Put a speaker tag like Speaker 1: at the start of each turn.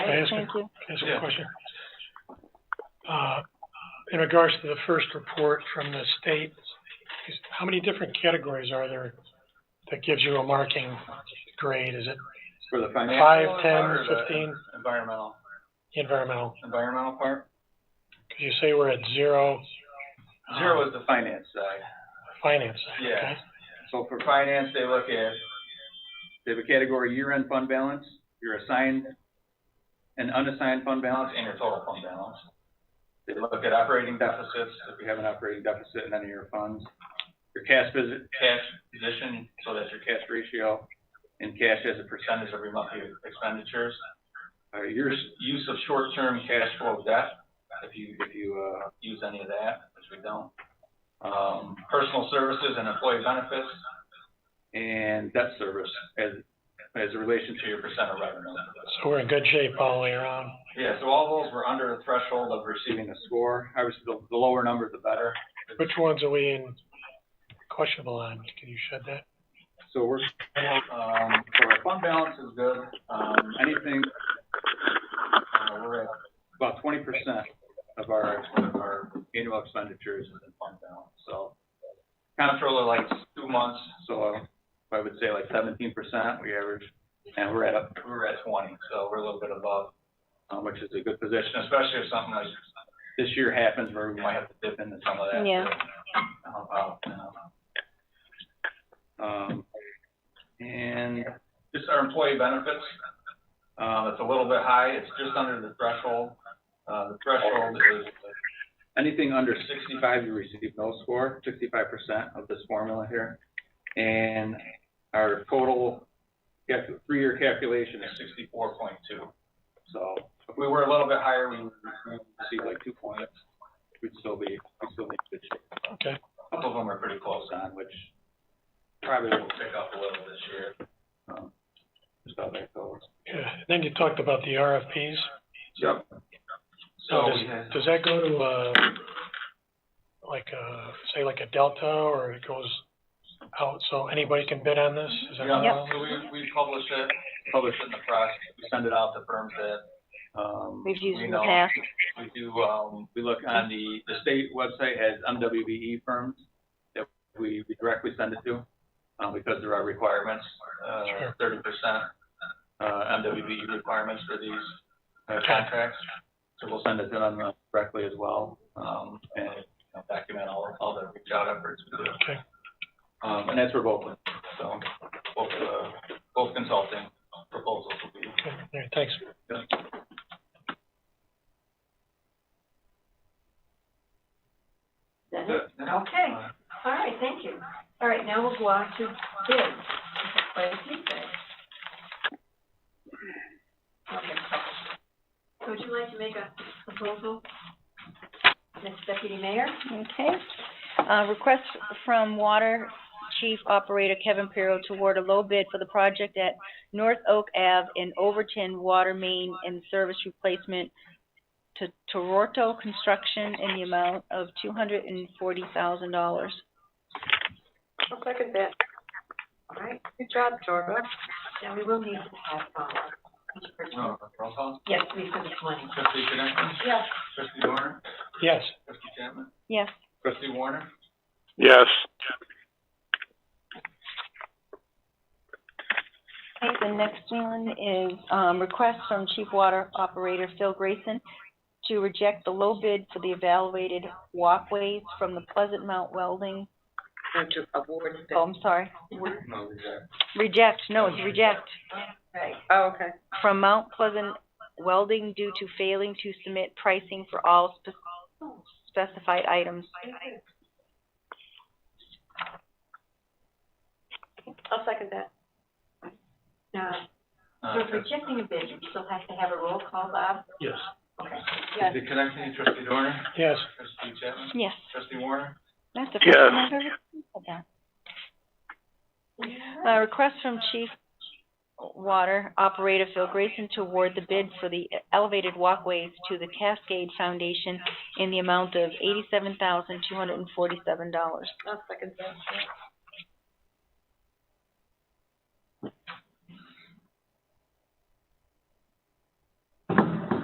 Speaker 1: I ask a-
Speaker 2: Thank you.
Speaker 1: Can I ask
Speaker 3: Yeah.
Speaker 1: a question? Uh, in regards to the first report from the state, is, how many different categories are there that gives you a marking grade? Is it
Speaker 3: For the financial
Speaker 1: five, ten,
Speaker 3: part or the
Speaker 1: fifteen,
Speaker 3: Environmental,
Speaker 1: environmental?
Speaker 3: environmental part?
Speaker 1: Cause you say we're at zero. um,
Speaker 3: Zero is the finance side.
Speaker 1: Finance, okay?
Speaker 3: Yeah. So for finance, they look at, they have a category year-end fund balance, your assigned and unassigned fund balance, and your total fund balance. They look at operating deficits, if you have an operating deficit in any of your funds, your cash visit, cash position, so that's your cash ratio, and cash as a percentage of your monthly expenditures. Uh, your s- use of short-term cash flow debt, if you, if you, uh, use any of that, which we don't um, personal services and employee benefits. And debt service as, as a relation to your percent of revenue.
Speaker 1: So we're in good shape all the way around.
Speaker 3: Yeah, so all those were under the threshold of receiving a score. Obviously, the, the lower number, the better.
Speaker 1: Which ones are we in questionable on? Can you shed that?
Speaker 3: So we're, um, so our fund balance is good. Um, anything, uh, we're at about twenty percent of our, of our annual expenditures is in fund balance, so. Comptroller likes two months, so I would say like seventeen percent, we average, and we're at, a- we're at twenty, so we're a little bit above, uh, which is a good position, especially if something like this year happens where we might have to dip into some of that.
Speaker 2: Yeah.
Speaker 3: to help out, you know. Um, and just our employee benefits, um, it's a little bit high, it's just under the threshold. Uh, the threshold is. uh, Anything under sixty-five, you receive no score, sixty-five percent of this formula here. And our total calcu- three-year calculation is sixty-four point two. So if we were a little bit higher, we would we would receive like two points, we'd still be, we'd still be in good shape.
Speaker 1: Okay.
Speaker 3: Couple of them are pretty close on, which probably will pick up a little this year. Um, Just about that goes.
Speaker 1: Yeah. Then you talked about the RFPs.
Speaker 3: Yep.
Speaker 1: So
Speaker 3: So
Speaker 1: does,
Speaker 3: we had-
Speaker 1: does that go to, uh, like, uh, say like a Delta or it goes out, so anybody can bid on this? Is that
Speaker 3: yeah,
Speaker 1: how-
Speaker 3: so we, we publish it, publish it in the press, we send it out to firms that, um.
Speaker 2: We've used
Speaker 3: we
Speaker 2: in the
Speaker 3: know.
Speaker 2: past.
Speaker 3: We do, um, we look on the, the state website has MWBE E firms that we we directly send it to, um, because there are requirements, uh,
Speaker 1: Sure.
Speaker 3: thirty percent, uh, MWBE requirements for these uh, contracts. So we'll send it to them uh, directly as well, um, and you know, document all, all the reach out efforts we do.
Speaker 1: Okay,
Speaker 3: Um, and that's for both, of them. so, both, uh, both consulting um, proposals will be.
Speaker 1: okay, all right, thanks.
Speaker 4: That it? Okay, all right, thank you. All right, now we'll go on to bids. Play feedback. Okay. So Would you like to make a proposal, Ms. Deputy Mayor?
Speaker 2: Okay. Uh, request from Water Chief Operator Kevin Pirro to award a low bid for the project at North Oak Ave in Overton Water Main and Service Replacement to Toronto Construction in the amount of two hundred and forty thousand dollars.
Speaker 4: I'll second that. All right, good job, Torba. Now, we will need to have, uh,
Speaker 3: No, roll call.
Speaker 4: yes, we for this money.
Speaker 3: Trustee Connectney?
Speaker 4: Yes.
Speaker 3: Trustee Warner?
Speaker 1: Yes,
Speaker 3: Trustee Chapman?
Speaker 2: Yes.
Speaker 3: Trustee Warner?
Speaker 5: Yes,
Speaker 2: Okay, the next one is, um, request from Chief Water Operator Phil Grayson to reject the low bid for the evaluated walkways from the Pleasant Mount Welding,
Speaker 4: Or to award bid.
Speaker 2: oh, I'm sorry,
Speaker 3: No, we got-
Speaker 2: reject, no, it's reject,
Speaker 4: Right. Oh, okay.
Speaker 2: from Mount Pleasant Welding due to failing to submit pricing for all spe- specified items.
Speaker 4: I'll second that. Now,
Speaker 3: uh,
Speaker 4: for rejecting a bid, we still have to have a roll call, Bob?
Speaker 1: yes,
Speaker 4: Yes.
Speaker 3: Trustee Connectney, Trustee Warner?
Speaker 1: yes,
Speaker 3: Trustee Chapman?
Speaker 2: Yes,
Speaker 3: Trustee Warner?
Speaker 2: that's the first
Speaker 5: Yes.
Speaker 2: time I've ever said that. Uh, request from Chief Water Operator Phil Grayson to award the bid for the elevated walkways to the Cascade Foundation in the amount of eighty-seven thousand, two hundred and forty-seven dollars.
Speaker 4: I'll second that.